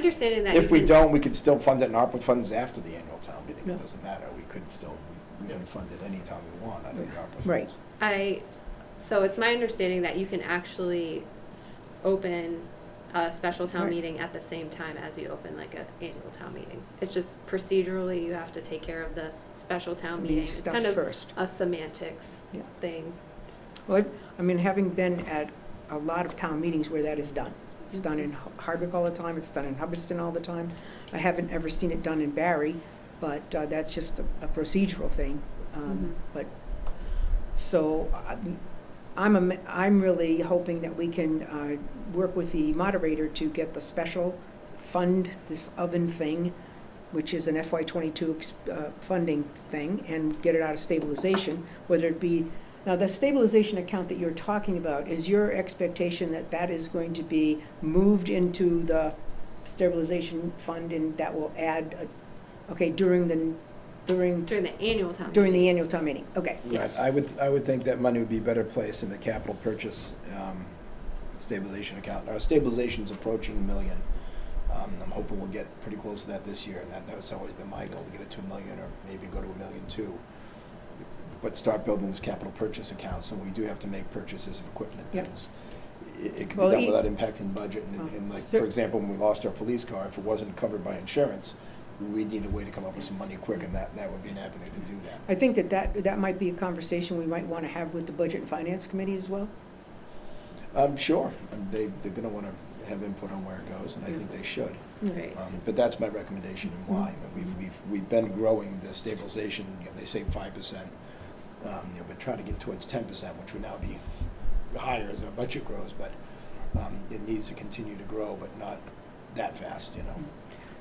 Understanding that. If you we can- don't, we could still fund it in ARPA funds after the annual town meeting, Yeah. it doesn't matter, we could still, we can fund it anytime we want under the ARPA funds. Right. I, so it's my understanding that you can actually s- open a special town Right. meeting at the same time as you open like a annual town meeting. It's just procedurally, you have to take care of the special town meeting. Meeting It's stuff kind of first. a semantics Yeah. thing. Well, I mean, having been at a lot of town meetings where that is done, it's done in Mm-hmm. Hardwick all the time, it's done in Hubbardston all the time. I haven't ever seen it done in Barry, but uh, that's just a a procedural thing. Mm-hmm. Um, But, so, I- I'm, am- I'm really hoping that we can uh, work with the moderator to get the special fund, this oven thing, which is an FY twenty-two ex- uh, funding thing, and get it out of stabilization, whether it be now, the stabilization account that you're talking about, is your expectation that that is going to be moved into the stabilization fund and that will add, uh, okay, during the, during, During the annual town. during the meeting. annual town meeting? Okay, Yeah. Right, I would, I would think that money would be better placed in the capital purchase um, stabilization account. Our stabilization's approaching a million. Um, I'm hoping we'll get pretty close to that this year, and that, that's always been my goal, to get it to a million, or maybe go to a million two. But start building this capital purchase accounts, and we do have to make purchases of equipment Yep. things. It, it can Well, be done e- without impacting budget, and, Oh, and like, cer- for example, when we lost our police car, if it wasn't covered by insurance, we'd need a way to come up with some money quick, and that, that would be an avenue to do that. I think that that, that might be a conversation we might want to have with the Budget and Finance Committee as well. Um, sure, Um, they, they're gonna wanna have input on where it goes, and I think they should. Right. Um, but that's my recommendation and why. I mean, We've, we've, we've been growing the stabilization, you know, they say five percent. Um, you know, but trying to get towards ten percent, which would now be higher as our budget grows, but, um, it needs to continue to grow, but not that fast, you know?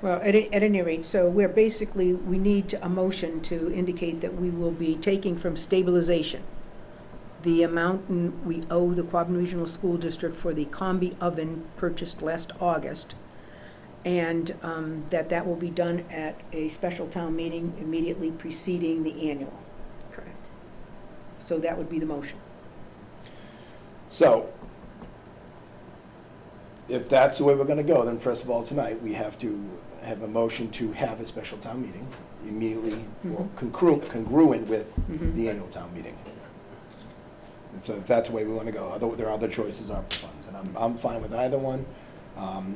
Well, at, a- at any rate, so we're basically, we need a motion to indicate that we will be taking from stabilization the amount in- we owe the Quabbin Regional School District for the combi oven purchased last August, and um, that that will be done at a special town meeting immediately preceding the annual. Correct. So that would be the motion. So, if that's the way we're gonna go, then first of all, tonight, we have to have a motion to have a special town meeting immediately or Mm-hmm. congruent, congruent with the annual town meeting. And so if that's the way we wanna go, although there are other choices, ARPA funds, and I'm, I'm fine with either one. Um,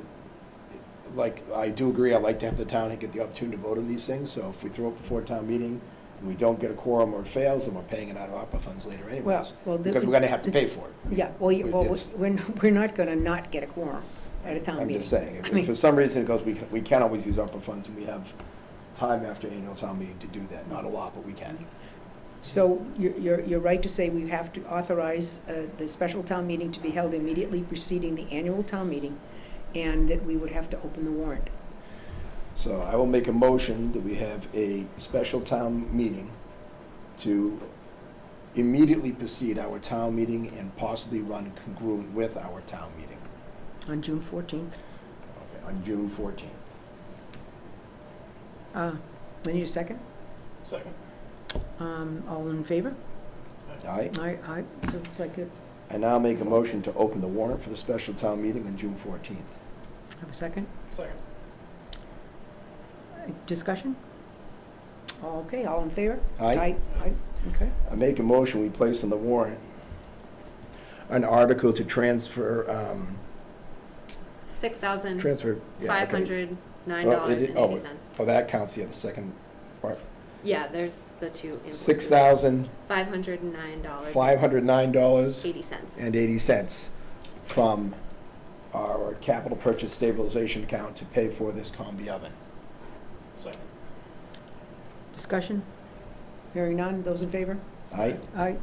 Like, I do agree, I like to have the town get the opportunity to vote on these things, so if we throw it before town meeting, and we don't get a quorum or it fails, then we're paying it out of ARPA funds later Well, anyways. well, the- Because we're gonna have to pay for it. Yeah, well, you- well, It's- we're, we're not going to not get a quorum at a town meeting. I'm just saying, if- I mean- if for some reason it goes, we can, we can always use ARPA funds, and we have time after annual town meeting to do that, not a lot, but we can. So you're- you're, you're right to say we have to authorize uh, the special town meeting to be held immediately preceding the annual town meeting, and that we would have to open the warrant. So I will make a motion that we have a special town meeting to immediately precede our town meeting and possibly run congruent with our town meeting On June 14th. okay, on June fourteenth. Uh, I need a second. Second. Um, All in favor? All right, I, I, so it's like it's, I now make a motion to open the warrant for the special town meeting on June fourteenth. have a second? Uh, Second. Discussion? Okay, all in favor? Aye. Aye, okay. I make a motion, we place on the warrant an article to transfer, um, Six thousand transfer. yeah, five okay. hundred nine Well, dollars it- and oh, eighty wait. cents. Oh, that counts, yeah, the second part. Yeah, there's the two invoices. Oh. Six thousand, Five hundred and nine dollars. five hundred nine dollars Eighty cents. and eighty cents from our capital purchase stabilization account to pay for this combi oven. Second. Discussion? Hearing none, those in favor? I Aye.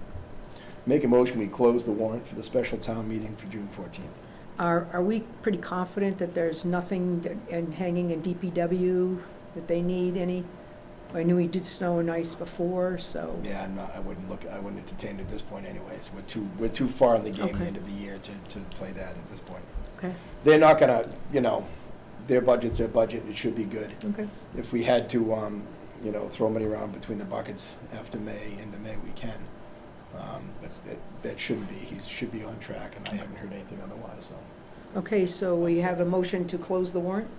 make a motion, we close the warrant for the special town meeting for June fourteenth. Are, are we pretty confident that there's nothing that- and hanging in DPW that they need any? I knew we did snow and ice before, so, Yeah, I'm not, I wouldn't look, I wouldn't entertain it at this point anyways. We're too, we're too far in the game, the Okay. end of the year to, to play that at this point. okay, They're not gonna, you know, their budget's their budget, it should be good. okay. if we had to, um, you know, throw money around between the buckets after May, into May, we can. Um, but that, that shouldn't be, he should be on track, and I haven't heard anything otherwise, so. Okay, so we have a motion to close the warrant?